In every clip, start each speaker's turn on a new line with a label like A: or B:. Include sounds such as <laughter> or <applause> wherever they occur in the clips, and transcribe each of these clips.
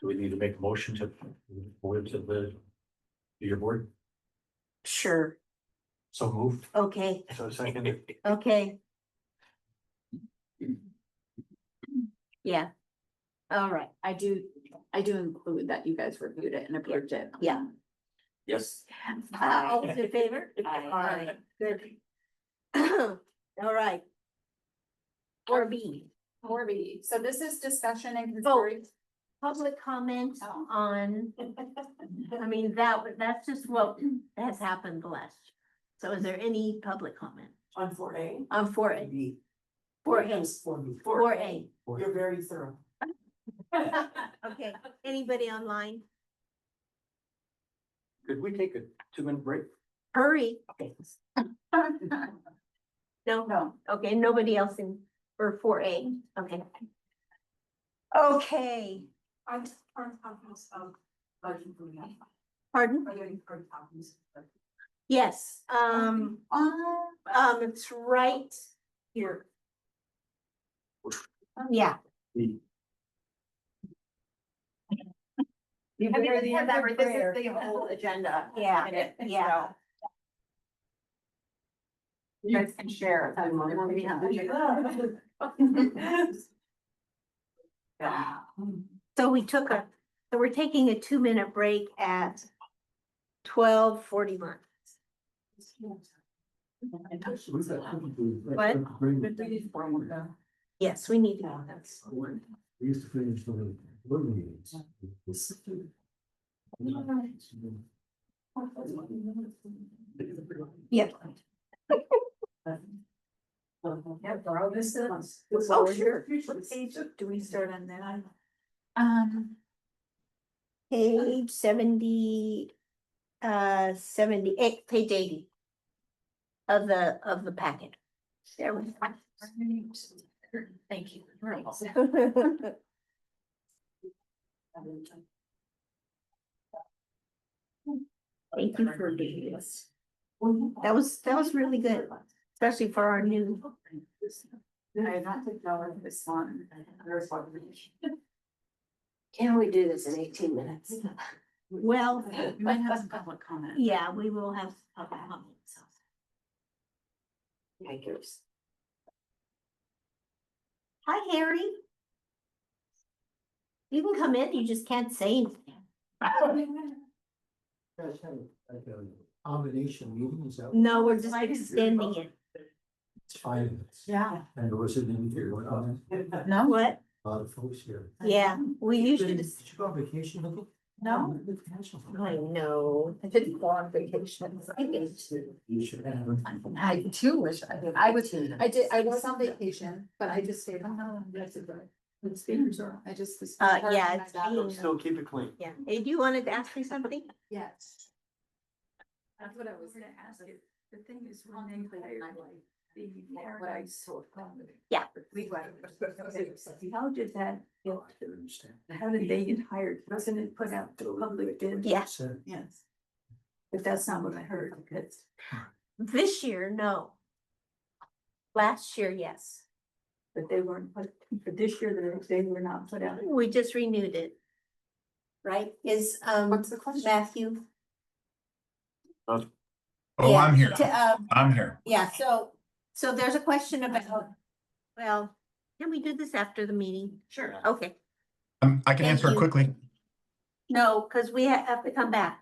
A: Do we need to make a motion to, forward to the, to your board?
B: Sure,
A: So moved,
B: okay,
A: so seconded.
B: okay. Yeah. All right,
C: I do, I do include that you guys reviewed it and approved it.
B: Yeah.
A: Yes.
B: Uh, all
C: <laughs>
B: those in favor?
C: Aye.
B: Good. <clears throat> All right. Or B,
C: Morby, so this is discussion and
B: Vote. <laughs>
C: <laughs> consideration.
B: public comment
C: Oh.
B: on, I mean, that, that's just what <clears throat> has happened last. year. So is there any public comment
D: On four A?
B: on four A? Four A, four A,
D: You're very thorough.
B: okay, anybody online?
A: Could we take a two minute break?
B: Hurry, no,
C: No,
B: Okay, nobody else in, for four A, okay. Okay,
D: I'm, I'm copies of. Motion for that.
B: pardon?
D: Are there any current copies?
B: Yes, um, um, it's right here. Um, Yeah.
C: I mean,
B: You're the
C: this is
B: other
C: the- this is
B: prayer.
C: the whole agenda.
B: <laughs> Yeah,
C: And it-
B: yeah.
C: so You guys can share. if you want. <laughs>
B: <laughs>
C: Yeah.
B: So we took a, so we're taking a two minute break at twelve forty one. What?
D: We need four more, though.
B: Yes, we need to go. That's-
E: We used to finish the board meetings.
B: Yeah.
D: Yeah, borrow this.
B: Oh, sure.
D: Future
B: Page,
D: page.
B: do we start on that?
C: Um,
B: Page seventy, uh, seventy eight, page eighty. Of the, of the packet. There we go.
C: thank you. You're welcome.
B: Thank you for doing this, That was- that was really good. especially for our new,
C: I have not taken over this one. There's one.
F: Can we do this in eighteen minutes?
B: well,
C: You might have some public comment.
B: yeah, we will have. public comment, so.
F: Yikers.
B: Hi, Harry. You can come in, you just can't say anything.
E: Like a Combination meetings, that was
B: No, we're just extending it.
E: five minutes,
C: Yeah.
E: and there was an interview, with a
C: No?
B: What?
E: lot of folks here.
B: Yeah, we usually
E: Did
B: just.
E: you go on vacation? Nicole?
C: No.
E: Good catch up.
F: I know, I didn't go on vacation. I did.
E: You should have.
F: I do wish I did. I was, I did, I was on
C: vacation.
F: vacation, but I just stayed
C: Oh,
F: home.
C: The speakers are, I just. this-
B: Uh, yeah, it's
C: Yeah.
B: being-
A: Still keep it clean.
B: Yeah, hey, do you wanted to ask me something?
C: Yes.
D: That's what I was gonna ask you. The thing is, when they hired like the paradise.
B: Yeah.
D: Leeway. How did that,
C: Oh,
D: how did they get hired? Wasn't it put out to public bid?
B: Yeah,
E: Said,
D: Yes. But that's not what I heard, because
B: this year, no. Last year, yes,
D: but they weren't, put for this year, they they were not put out.
B: we just renewed it. Right, is, um,
C: What's the question?
B: Matthew?
G: Oh,
B: Yeah,
G: I'm here.
B: to, um,
G: I'm here.
B: Yeah, so, so there's a question about, well, can we do this after the meeting?
C: Sure.
B: Okay,
G: Um, I can
B: Thank
G: answer it
B: you.
G: quickly.
B: no, because we ha- have to come back.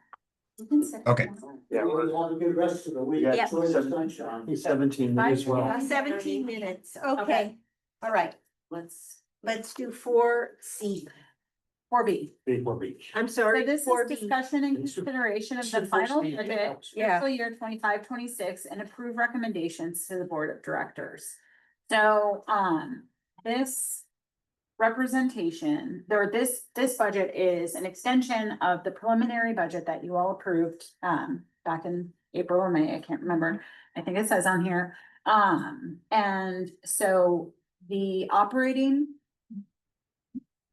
G: Okay.
A: Yeah,
E: have a good rest of the week.
B: Yeah.
E: Enjoy the sunshine.
A: Seventeen minutes, well,
B: Uh, Seventeen minutes, okay, all right,
C: Let's.
B: let's do four C,
C: Four B.
A: before beach.
B: I'm
C: So
B: sorry.
C: this is
B: 4B.
C: discussion and consideration of the final budget
B: Yeah.
C: fiscal year 25-26 and approve recommendations to the board of directors. So, um, this representation, or this, this budget is an extension of the preliminary budget that you all approved, um, back in April or May, I can't remember. I think it says on here. Um, and so the operating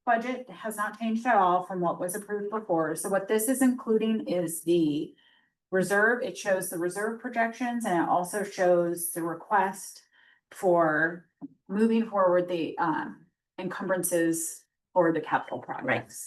C: budget has not changed at all from what was approved before. So what this is including is the reserve. It shows the reserve projections and it also shows the request for moving forward the um encumbrances or the capital projects.